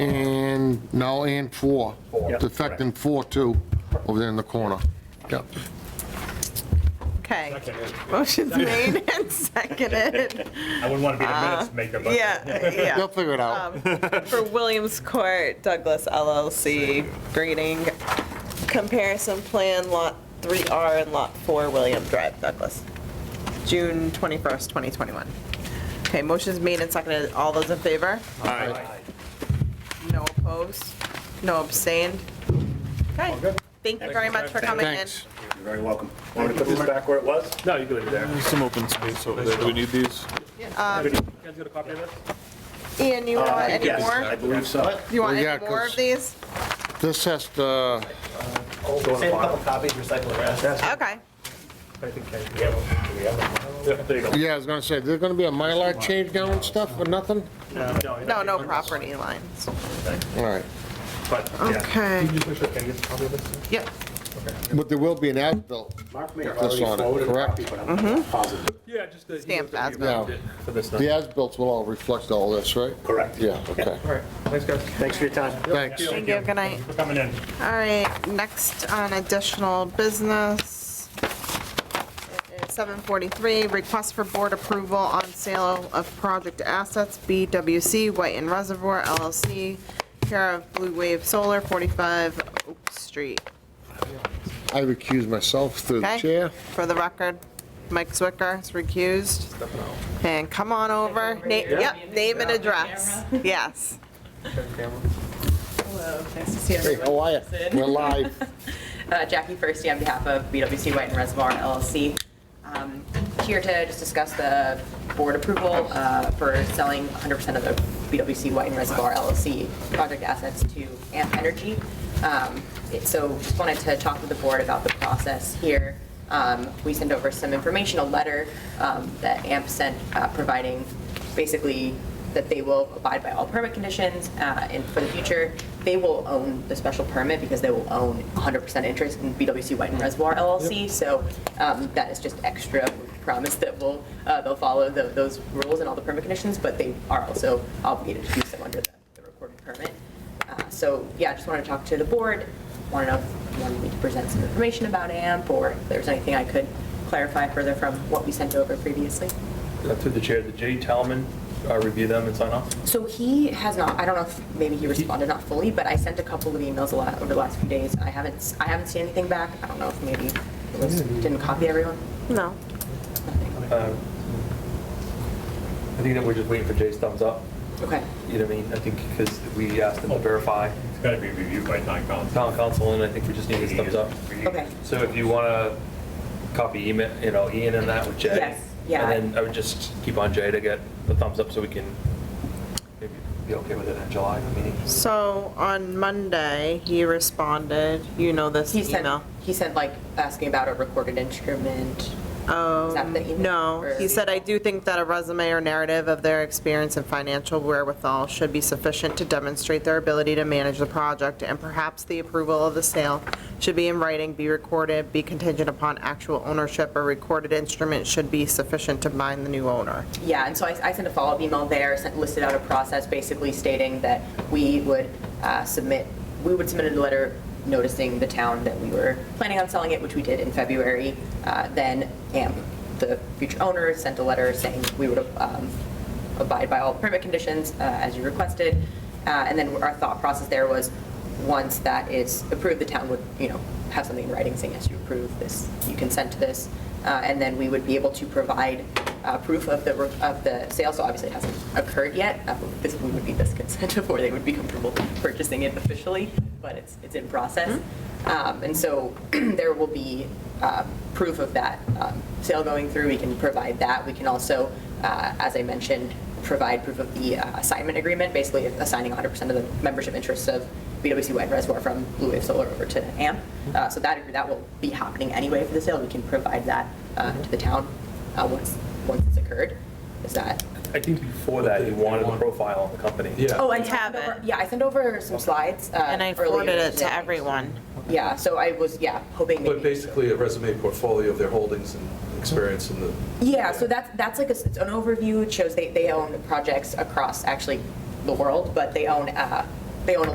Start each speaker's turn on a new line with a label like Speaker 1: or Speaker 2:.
Speaker 1: and, no, and four.
Speaker 2: Four.
Speaker 1: It's affecting four too, over there in the corner. Yep.
Speaker 3: Okay.
Speaker 2: Seconded.
Speaker 3: Motion's made and seconded.
Speaker 2: I wouldn't want to be the minutes maker, but.
Speaker 3: Yeah,
Speaker 1: They'll
Speaker 3: yeah.
Speaker 1: figure it
Speaker 3: Uh,
Speaker 1: out.
Speaker 3: For Williams Court Douglas LLC grading comparison plan Lot 3R and Lot 4 William Drive Douglas, June 21st, 2021. Okay, motion's made and seconded. All those in favor? No opposed? No abstained? Okay. Thank you very much for coming in.
Speaker 1: Thanks.
Speaker 2: You're very welcome. Want me to put this back where it was? No, you can leave it there. Um,
Speaker 4: There's some open space over there. Do we need these?
Speaker 2: You guys got a copy of this?
Speaker 3: Ian,
Speaker 1: Uh,
Speaker 3: you want any
Speaker 2: Yes,
Speaker 3: more?
Speaker 2: I believe so.
Speaker 3: You want
Speaker 1: Well, yeah,
Speaker 3: any more of
Speaker 1: 'cause-
Speaker 3: these?
Speaker 1: This has to,
Speaker 5: Save a couple copies, recycle the rest.
Speaker 3: Okay.
Speaker 2: There you go.
Speaker 1: yeah, I was gonna say, there's gonna be a Mylar change down and stuff or nothing?
Speaker 3: No, no property lines.
Speaker 1: All right.
Speaker 2: But, yeah.
Speaker 3: Okay.
Speaker 2: Can you get a copy of this?
Speaker 3: Yep.
Speaker 1: But there will be an as-built.
Speaker 5: Mark may have
Speaker 1: That's
Speaker 5: already
Speaker 1: on it,
Speaker 5: forwarded a
Speaker 1: correct? Mm-hmm.
Speaker 5: copy, but I'm positive.
Speaker 4: Yeah, just the.
Speaker 3: Stamped as
Speaker 1: Yeah.
Speaker 4: For this
Speaker 1: The as-bills will all reflect all this, right?
Speaker 5: Correct.
Speaker 1: Yeah, okay.
Speaker 4: Thanks, guys.
Speaker 5: Thanks for your time.
Speaker 1: Thanks.
Speaker 3: Thank you, good night.
Speaker 2: For coming in.
Speaker 3: All right, next on additional business. It is 743, request for board approval on sale of project assets, BWC White and Reservoir LLC, care of Blue Wave Solar, 45 Oak Street.
Speaker 1: I recuse myself through the
Speaker 3: Okay?
Speaker 1: chair.
Speaker 3: For the record, Mike Zwicker is recused. And come on over, Na- yep, name and address. Yes.
Speaker 6: Hello, nice to see
Speaker 1: Hey,
Speaker 6: everyone.
Speaker 1: how are you?
Speaker 6: Sid.
Speaker 1: We're live.
Speaker 6: Uh, Jackie Firsty on behalf of BWC White and Reservoir LLC. Um, Here to just discuss the board approval uh, for selling 100% of the BWC White and Reservoir LLC project assets to AMP Energy. Um, it- So just wanted to talk with the board about the process here. Um, We sent over some information, a letter um, that AMP sent uh, providing basically that they will abide by all permit conditions, uh, and for the future, they will own the special permit because they will own 100% interest in BWC White and Reservoir LLC, so um, that is just extra promise that will, uh, they'll follow tho- those rules and all the permit conditions, but they are also obligated to do so under the the recorded permit. Uh, So, yeah, I just wanted to talk to the board, want to know if you wanted me to present some information about AMP, or if there's anything I could clarify further from what we sent over previously.
Speaker 7: Through the chair, did J. Talman uh, review them and sign off?
Speaker 6: So he has not, I don't know if maybe he responded not fully, but I sent a couple of emails a lot over the last few days. I haven't, s- I haven't seen anything back. I don't know if maybe it was, didn't copy everyone.
Speaker 3: No.
Speaker 7: Uh, I think that we're just waiting for Jay's thumbs up,
Speaker 6: Okay.
Speaker 7: you know what I mean? I think because we asked them to verify
Speaker 2: It's got to be reviewed by town council.
Speaker 7: town council, and I think we just need his thumbs up.
Speaker 6: Okay.
Speaker 7: So if you want to copy email, you know, Ian and that with Jay.
Speaker 6: Yes, yeah.
Speaker 7: And then I would just keep on Jay to get the thumbs up so we can maybe be okay with it in July meeting.
Speaker 3: So on Monday, he responded, you know this
Speaker 6: He sent,
Speaker 3: email.
Speaker 6: he sent like asking about a recorded instrument. Is that the email?
Speaker 3: Oh, No,
Speaker 6: Or-
Speaker 3: he said, I do think that a resume or narrative of their experience and financial wherewithal should be sufficient to demonstrate their ability to manage the project, and perhaps the approval of the sale should be in writing, be recorded, be contingent upon actual ownership, or recorded instrument should be sufficient to bind the new owner.
Speaker 6: Yeah, and so I, I sent a follow-up email there, sent, listed out a process basically stating that we would uh, submit, we would submit a letter noticing the town that we were planning on selling it, which we did in February. Uh, Then AMP, the future owner, sent a letter saying we would um, abide by all permit conditions uh, as you requested. Uh, And then our thought process there was, once that is approved, the town would, you know, have something in writing saying, yes, you approve this, you consent to this. Uh, And then we would be able to provide uh, proof of the, of the sale, so obviously it hasn't occurred yet. Uh, This would be this consent before they would be comfortable purchasing it officially, but it's, it's in process. Um, And so there will be uh, proof of that um, sale going through. We can provide that. We can also, uh, as I mentioned, provide proof of the uh, assignment agreement, basically assigning 100% of the membership interests of BWC White Reservoir from Blue Wave Solar over to AMP. Uh, So that, that will be happening anyway for the sale. We can provide that uh, to the town uh, once, once it's occurred. Is that?
Speaker 7: I think before that, you wanted a profile on the company. Yeah.
Speaker 6: Oh,
Speaker 3: I have it.
Speaker 6: Yeah, I sent over some slides. uh,
Speaker 3: And I
Speaker 6: earlier
Speaker 3: forwarded it to
Speaker 6: today.
Speaker 3: everyone.
Speaker 6: Yeah, so I was, yeah, hoping maybe.
Speaker 8: But basically, a resume portfolio of their holdings and experience in the.
Speaker 6: Yeah, so that's, that's like, a s- it's an overview, it shows they, they own projects across actually the world, but they own uh, they own a